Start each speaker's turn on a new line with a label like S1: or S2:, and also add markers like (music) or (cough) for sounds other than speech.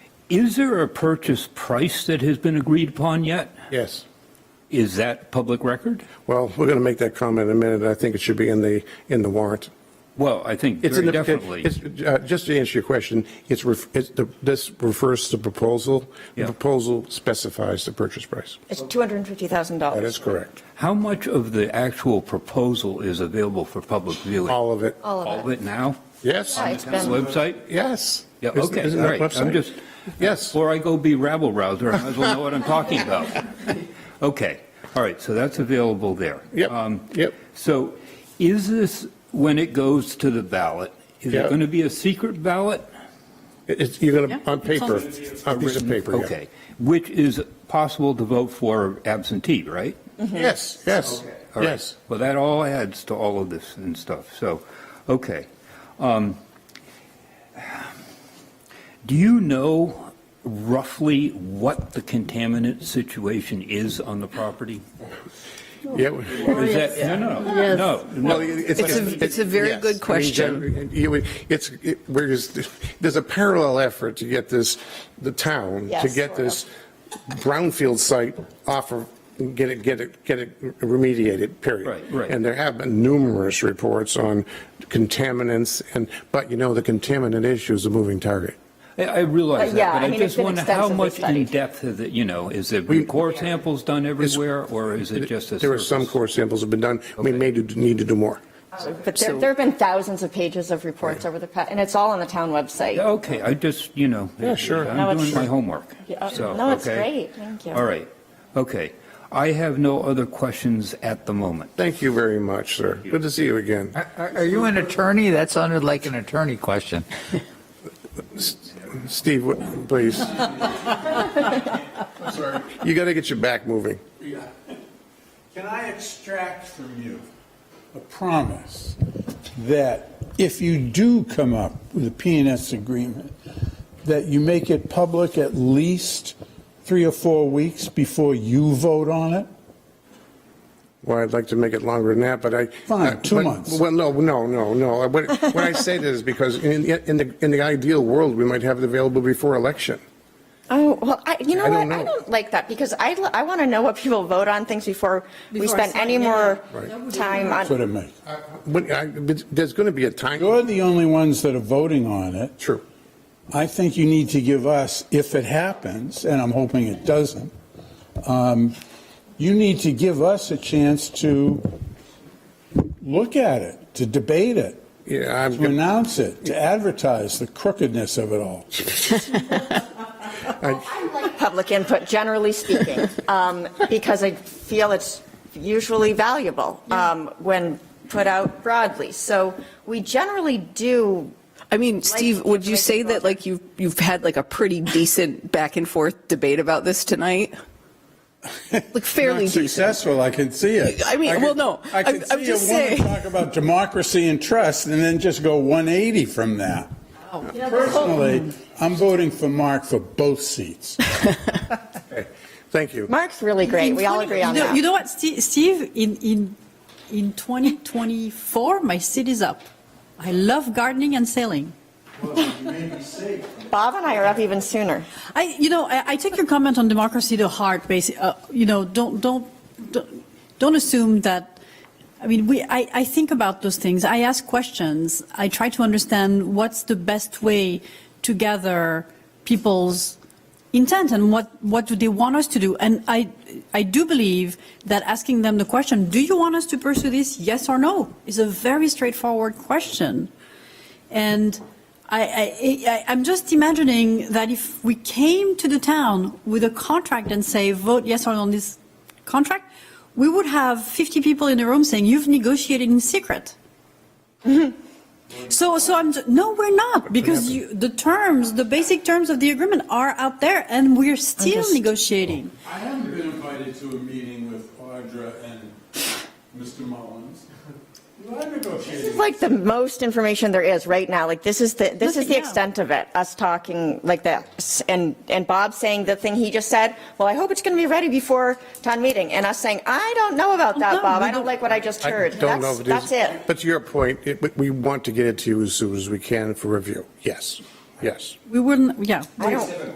S1: Is there a purchase price that has been agreed upon yet?
S2: Yes.
S1: Is that public record?
S2: Well, we're going to make that comment in a minute. I think it should be in the, in the warrant.
S1: Well, I think
S2: It's
S1: very
S2: in the-
S1: definitely.
S2: it's, uh, Just to answer your question, it's, ref- it's the- this refers to proposal. The
S1: Yeah.
S2: proposal specifies the purchase price.
S3: It's
S1: Oh.
S3: $250,000.
S2: That is correct.
S1: How much of the actual proposal is available for public viewing?
S2: All of it.
S3: All
S1: All
S3: of
S1: of
S3: it.
S1: it now?
S2: Yes?
S3: Yeah, it's
S1: On the
S3: been-
S1: website?
S2: Yes.
S1: Yeah,
S2: Isn't-
S1: okay,
S2: isn't
S1: all
S2: that
S1: right. I'm
S2: website?
S1: just,
S2: Yes.
S1: Or I go be rabble rouser, I might as well know what I'm talking about. (laughs) Okay, all right, so that's available there.
S2: Yep,
S1: Um,
S2: yep.
S1: So is this, when it goes to the ballot, is
S2: Yeah.
S1: it going to be a secret ballot?
S2: It- It's, you're going to,
S4: Yeah,
S2: on
S4: it's on
S2: paper,
S4: the-
S2: on piece of paper, yeah.
S1: Okay, which is possible to vote for absentee, right?
S2: Yes, yes,
S1: All right.
S2: yes.
S1: Well, that all adds to all of this and stuff, so, okay. Um, Do you know roughly what the contaminant situation is on the property?
S2: Yeah. we-
S3: Oh,
S1: Is that, no, no, no, no.
S2: Well,
S4: It's
S2: like
S4: a- it's a very
S2: yes.
S4: good
S2: I mean,
S4: question.
S2: you would- It's, it- whereas, there's a parallel effort to get this, the town, to
S3: Yes,
S2: get
S3: sort of.
S2: this brownfield site off of, get it, get it, get it remediated, period.
S1: Right, right.
S2: And there have been numerous reports on contaminants and, but you know, the contaminant issue is a moving target.
S1: I I realize
S3: But yeah,
S1: that,
S3: I
S1: but I
S3: mean, it's
S1: just
S3: been
S1: wonder how
S3: extensively
S1: much in
S3: studied.
S1: depth is it, you know, is there been core samples done everywhere, or is it just a
S2: There are some
S1: surface?
S2: core samples have been done. We may do- need to do more.
S3: But there, there have been thousands of pages of reports over the past, and it's all on the town website.
S1: Okay, I just, you know.
S2: Yeah, sure.
S3: No,
S1: I'm
S3: it's-
S1: doing my homework.
S3: Yeah,
S1: So,
S3: no, it's
S1: okay.
S3: great. Thank you.
S1: All right, okay. I have no other questions at the moment.
S2: Thank you very much, sir. Good to see you again.
S5: Are, are are you an attorney? That sounded like an attorney question.
S2: Steve, what- please. You got to get your back moving.
S6: Can I extract from you a promise that if you do come up with a PNS agreement, that you make it public at least three or four weeks before you vote on it?
S2: Well, I'd like to make it longer than that, but I. uh,
S6: Fine, two
S2: but-
S6: months.
S2: Well, no, no, no, no. What, what I say is because in, in the, in the ideal world, we might have it available before election.
S3: Oh, well, I, you know
S2: I
S3: what?
S2: don't know.
S3: I don't like that because I, l- I want to know what people vote on things before we
S4: Before I
S3: spend any
S4: sign in.
S3: more
S4: Right. That would be
S3: time
S6: That's what
S3: on.
S6: it means.
S2: But I, but there's going to be a
S6: You're
S2: time.
S6: the only ones that are voting on it.
S2: True.
S6: I think you need to give us, if it happens, and I'm hoping it doesn't, um, you need to give us a chance to look at it, to debate it,
S2: Yeah,
S6: to
S2: I'm,
S6: announce it, to advertise the crookedness of it all.
S3: I like Public input,
S2: (laughs)
S3: generally speaking, um, because I feel it's usually valuable, um, when put out broadly. So we generally do
S4: I mean, Steve, would you say that like you've, you've had like a pretty decent back and forth debate about this tonight? Like fairly
S6: Not
S4: decent.
S6: successful, I can see it.
S4: I mean,
S6: can-
S4: well, no,
S6: I can
S4: I'm- I'm
S6: see a
S4: just
S6: woman
S4: saying.
S6: talk about democracy and trust and then just go 180 from that.
S4: Oh.
S6: Personally, I'm voting for Mark for both seats.
S2: thank you.
S3: Mark's really great.
S4: In
S3: We all
S4: 20
S3: agree on
S4: you know, You
S3: that.
S4: know what, Steve, Steve, in, in, in 2024, my seat is up. I love gardening and sailing.
S3: Bob and I are up even sooner.
S4: I, you know, I, I take your comment on democracy to heart. Basi- uh, you know, don't, don't, don't, don't assume that. I mean, we, I, I think about those things. I ask questions. I try to understand what's the best way to gather people's intent and what, what do they want us to do. And I, I do believe that asking them the question, do you want us to pursue this, yes or no, is a very straightforward question. And I, I, I, I'm just imagining that if we came to the town with a contract and say, vote yes or no on this contract, we would have 50 people in the room saying, you've negotiated in secret. So, so I'm, ju- no, we're not, because you, the terms, the basic terms of the agreement are out there, and we're still
S3: Understood.
S4: negotiating.
S6: I haven't been invited to a meeting with Audra and Mr. Mullins. I
S3: This
S6: negotiated.
S3: is like the most information there is right now. Like this is the, this is
S4: Nothing,
S3: the
S4: yeah.
S3: extent of it, us talking like this. And, and Bob saying the thing he just said, well, I hope it's going to be ready before town meeting. And us saying, I don't know about that,
S4: No,
S3: Bob.
S4: we
S3: I don't
S4: don't-
S3: like what I just
S2: I
S3: heard.
S2: don't know
S3: That's,
S2: if it is.
S3: that's it.
S2: But to your point, it- we- we want to get it to you as soon as we can for review. Yes, yes.
S4: We wouldn't, yeah.
S3: I don't.